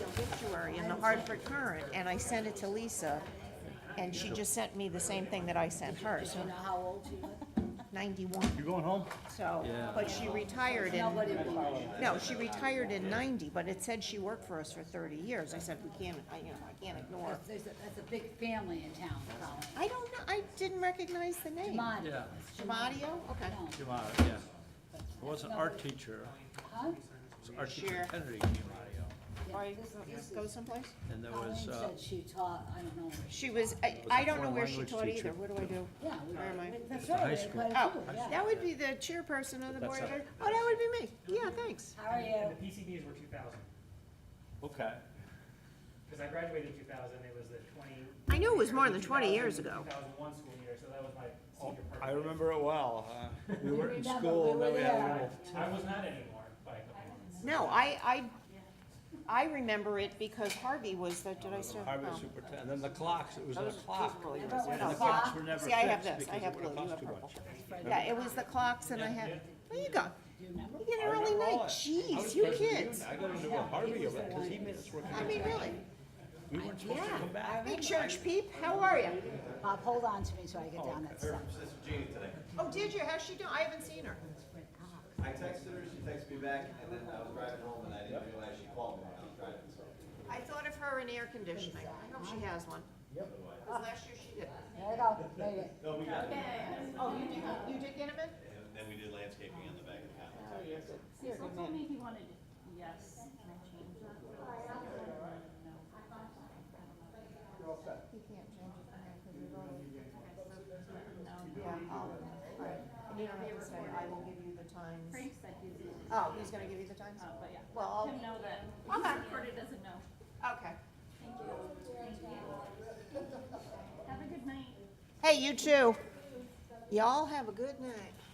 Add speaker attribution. Speaker 1: story in the Hartford Current, and I sent it to Lisa, and she just sent me the same thing that I sent her,
Speaker 2: Do you know
Speaker 1: so
Speaker 2: how old she was?
Speaker 1: ninety-one,
Speaker 3: You going home?
Speaker 1: so, but she retired in,
Speaker 2: Nobody believes you.
Speaker 1: no, she retired in ninety, but it said she worked for us for thirty years. I said, we can't, I, you know, I can't ignore.
Speaker 2: That's, there's a- that's a big family in town, Colin.
Speaker 1: I don't know, I didn't recognize the name.
Speaker 2: Jamadi.
Speaker 3: Yeah.
Speaker 2: It's Jamadi.
Speaker 1: Jamadio? Okay.
Speaker 2: No.
Speaker 3: Jamada, yeah. I was an art teacher,
Speaker 2: Huh?
Speaker 3: It was an art
Speaker 1: Sure.
Speaker 3: teacher Kennedy Gimadio,
Speaker 2: Yeah,
Speaker 1: Or
Speaker 2: this- this
Speaker 1: go
Speaker 2: is-
Speaker 1: someplace?
Speaker 3: and there
Speaker 2: Colleen
Speaker 3: was, uh,
Speaker 2: said she taught, I don't know. where she-
Speaker 1: She was, I,
Speaker 3: was a
Speaker 1: I don't know
Speaker 3: foreign
Speaker 1: where she
Speaker 3: language
Speaker 1: taught either.
Speaker 3: teacher.
Speaker 1: What do I do?
Speaker 2: Yeah. we-
Speaker 1: Where am I?
Speaker 2: That's
Speaker 3: the high
Speaker 2: right,
Speaker 3: school.
Speaker 2: quite a
Speaker 1: Oh,
Speaker 2: few, yeah.
Speaker 1: that would be the chairperson of the board.
Speaker 3: That's how-
Speaker 1: of- Oh, that would be me. Yeah, thanks.
Speaker 2: How are
Speaker 4: And
Speaker 2: you?
Speaker 4: the PCBs were two thousand,
Speaker 3: okay,
Speaker 4: because I graduated in two thousand, it was the twenty.
Speaker 1: I knew it was more than 20 years ago.
Speaker 4: Two thousand one school year, so that was my
Speaker 3: Oh,
Speaker 4: senior part.
Speaker 3: I remember it well, huh? we were in
Speaker 2: remember,
Speaker 3: school,
Speaker 2: we
Speaker 3: and then
Speaker 2: were
Speaker 3: we had a
Speaker 2: there.
Speaker 3: little.
Speaker 4: I was not anymore by a couple months.
Speaker 1: No, I, I, I remember it because Harvey was the, did I still?
Speaker 3: Harvard
Speaker 1: oh.
Speaker 3: superintendent, and then the clocks, it was a
Speaker 1: Those- those
Speaker 3: clock,
Speaker 1: were really
Speaker 3: and
Speaker 1: nice.
Speaker 3: the
Speaker 2: Yeah.
Speaker 3: clocks were never
Speaker 1: See, I have
Speaker 3: fixed
Speaker 1: this. I
Speaker 3: because
Speaker 1: have
Speaker 3: it would
Speaker 1: blue. You
Speaker 3: cost
Speaker 1: have
Speaker 3: too
Speaker 1: purple.
Speaker 3: much.
Speaker 1: Yeah, it was the clocks and I had, there you go.
Speaker 2: Do you remember?
Speaker 1: You get
Speaker 3: I
Speaker 1: an early
Speaker 3: remember all
Speaker 1: night.
Speaker 3: that. I was
Speaker 1: Jeez, you
Speaker 3: president of the
Speaker 1: kids.
Speaker 3: union. I got into a Harvey event, because he made us work,
Speaker 1: I mean, really.
Speaker 3: we weren't supposed to come back.
Speaker 1: Hey, church peep, how are you?
Speaker 2: Bob, hold on to me so I get down that stuff.
Speaker 5: Her sister Jeannie today.
Speaker 1: Oh, did you? How's she doing? I haven't seen her.
Speaker 5: I texted her, she texted me back, and then I was driving home and I didn't realize she called me when I was driving, so.
Speaker 1: I thought of her in air conditioning. I hope she has one. Yep. last year she did.
Speaker 2: There you go, made it.
Speaker 5: No, we got it.
Speaker 1: Oh, you did, you did get him in?
Speaker 5: And then we did landscaping on the back of the house.
Speaker 6: Cecil told me he wanted it, yes, and I changed it. No.
Speaker 1: Oh, You don't have to say, I will give you the times.
Speaker 6: Frank said he's, uh,
Speaker 1: Oh, he's gonna give you the times?
Speaker 6: but yeah.
Speaker 1: Well,
Speaker 6: Him know that,
Speaker 1: Okay.
Speaker 6: Corda doesn't know.
Speaker 1: okay.
Speaker 6: Have a good night.
Speaker 1: Hey, you too. Y'all have a good night.